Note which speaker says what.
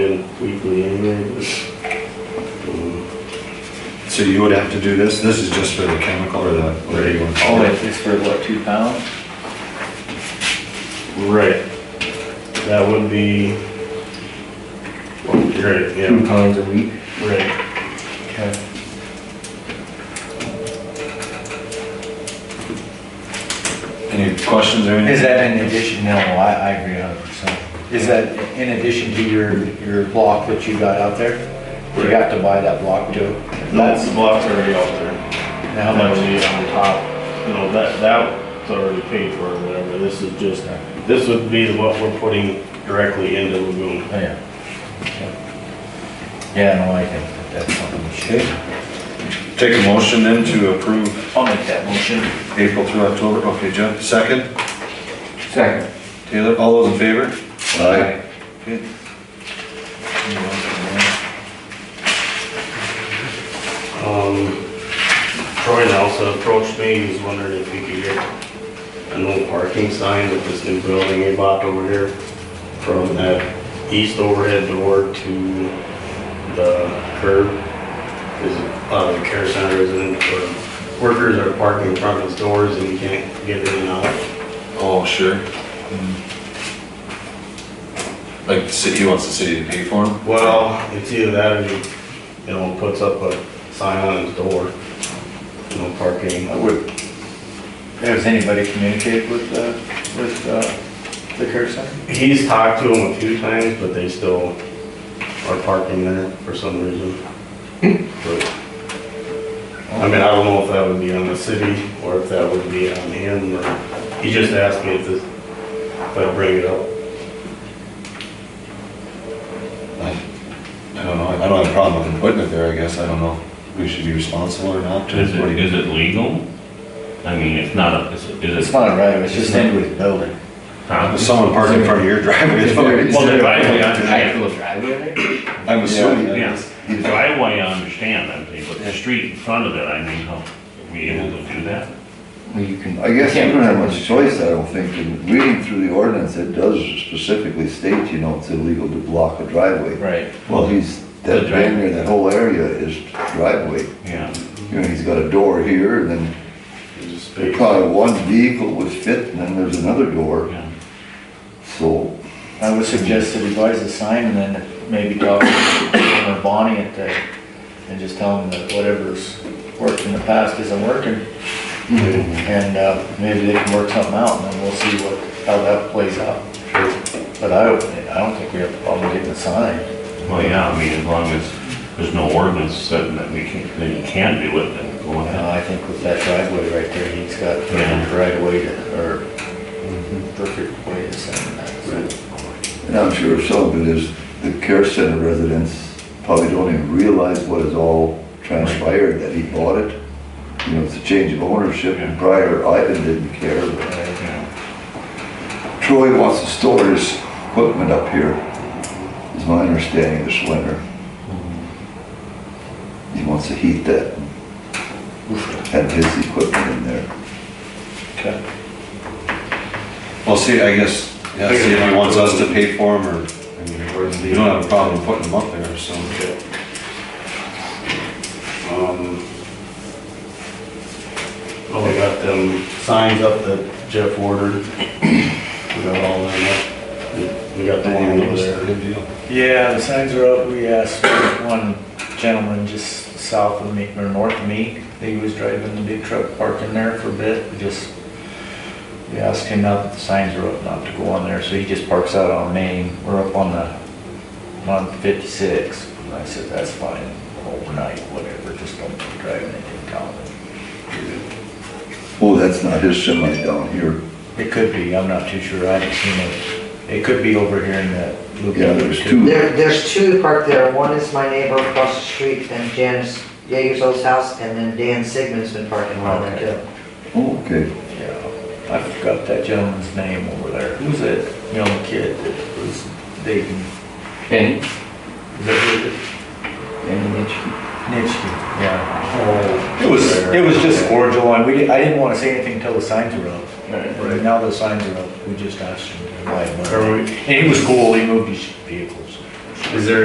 Speaker 1: it weekly anyway, but, um,
Speaker 2: So you would have to do this, this is just for the chemical or the, or you want to
Speaker 3: Oh,
Speaker 2: call it?
Speaker 3: it's it's for what, two pounds?
Speaker 1: right. That would be, right, yeah,
Speaker 3: pounds a week.
Speaker 1: right.
Speaker 3: Okay.
Speaker 2: Any questions or
Speaker 4: Is
Speaker 2: anything?
Speaker 4: that in addition, no, I, I agree a hundred percent. Is that in addition to your, your block that you got out there? You have to buy that block too?
Speaker 1: That's the block already out there.
Speaker 4: And How
Speaker 1: How
Speaker 4: much?
Speaker 1: much
Speaker 3: Oh,
Speaker 1: is on top? You know, that, that's already paid for or whatever. This is just, this would be what we're putting directly into Lagoon.
Speaker 4: Oh, Yeah. Yeah, no, I think that that's something we should.
Speaker 2: Take a motion then to approve
Speaker 3: I'll make that motion.
Speaker 2: April through October, okay, Jeff, second,
Speaker 3: Second.
Speaker 2: Taylor, all those in favor? Aye. Okay.
Speaker 1: Um, Troy also approached me, he was wondering if he could get an old parking sign with this new building he bought over here from that east overhead door to the curb. Is uh, the care center resident for workers are parking in front of his doors and he can't get in and out.
Speaker 2: Oh, sure. Hmm. Like, the city, he wants the city to pay for him?
Speaker 1: Well, it's either that or he, you know, puts up a sign on his door, you know, parking.
Speaker 3: I would. Has anybody communicated with, uh, with, uh, the care center?
Speaker 1: He's talked to them a few times, but they still are parking there for some reason. But, I mean, I don't know if that would be on the city or if that would be on him, or, he just asked me if this, if I bring it up.
Speaker 2: I I don't know, I don't have a problem with him putting it there, I guess, I don't know, if we should be responsible or not.
Speaker 5: Is
Speaker 2: What do
Speaker 5: it,
Speaker 2: you-
Speaker 5: is it legal? I mean, it's not a, is it- is
Speaker 4: It's
Speaker 5: it?
Speaker 4: not right, it's just into his building.
Speaker 5: huh?
Speaker 2: If Someone parked in front of your driveway. it's probably-
Speaker 5: Well, the driveway, I,
Speaker 3: Actual driveway?
Speaker 2: I'm assuming. that
Speaker 5: yeah,
Speaker 2: it's-
Speaker 5: the driveway, I understand, I'm saying, but the street in front of it, I mean, how, are we able to do that?
Speaker 3: Well, you can.
Speaker 6: I guess you don't have much choice, I don't think. In Reading through the ordinance, it does specifically state, you know, it's illegal to block a driveway.
Speaker 3: Right.
Speaker 6: Well, he's, that
Speaker 5: The driveway.
Speaker 6: banner, that whole area is driveway.
Speaker 5: Yeah,
Speaker 6: You know, he's got a door here, and then
Speaker 1: Just space.
Speaker 6: probably one vehicle would fit, and then there's another door,
Speaker 5: yeah.
Speaker 6: so.
Speaker 4: I would suggest that he buys a sign and then maybe talk to him or Bonnie at the, and just tell him that whatever's worked in the past isn't working. And, uh, maybe they can work something out and then we'll see what, how that plays out. But I, don't- I don't think we have a problem getting a sign.
Speaker 5: Well, yeah, I mean, as long as there's no ordinance saying that we can, that you can do it, then go
Speaker 4: No,
Speaker 5: ahead.
Speaker 4: I think with that driveway right there, he's got the right way to, or perfect way to send that.
Speaker 6: And I'm sure some of it is the care center residents probably don't even realize what has all transpired, that he bought it. You know, it's a change of ownership, and prior Ivan didn't care, but
Speaker 5: Yeah.
Speaker 6: Troy wants to store his equipment up here, is my understanding this winter. He wants to heat that, have his equipment in there.
Speaker 2: Well, see, I guess, yeah, see if he wants us to pay for him, or, I mean,
Speaker 1: Where's the-
Speaker 2: you don't have a problem putting him up there, so.
Speaker 1: Um, Well, we got them signs up that Jeff ordered. We got all them up. We got the one over there.
Speaker 4: Yeah, the signs are up, we asked one gentleman just south of me, or north of me, he was driving the big truck parked in there for a bit, we just, we asked him now that the signs are up not to go on there, so he just parks out on Main, we're up on the, on fifty-six, and I said, that's fine, overnight, whatever, just don't be driving it in town.
Speaker 6: Oh, that's not his semi down here.
Speaker 4: It could be, I'm not too sure, I haven't seen it. It could be over here in the loop.
Speaker 6: Yeah, there's two.
Speaker 7: There, there's two parked there. One is my neighbor across the street and Janice Yeager's old house, and then Dan Sigmund's been parking around there too.
Speaker 6: Oh, okay.
Speaker 4: Yeah, I forgot that gentleman's name over there. Who's that young kid that was dating? Benny? Is that who it is? Benny Nitschke? Nitschke, yeah. It was, it was just cordial, and we, di- I didn't wanna say anything until the signs were up. Right. Now the signs are up, we just asked him to buy
Speaker 1: Are
Speaker 4: one.
Speaker 1: we,
Speaker 4: And he was cool, he moved his vehicles.
Speaker 1: is there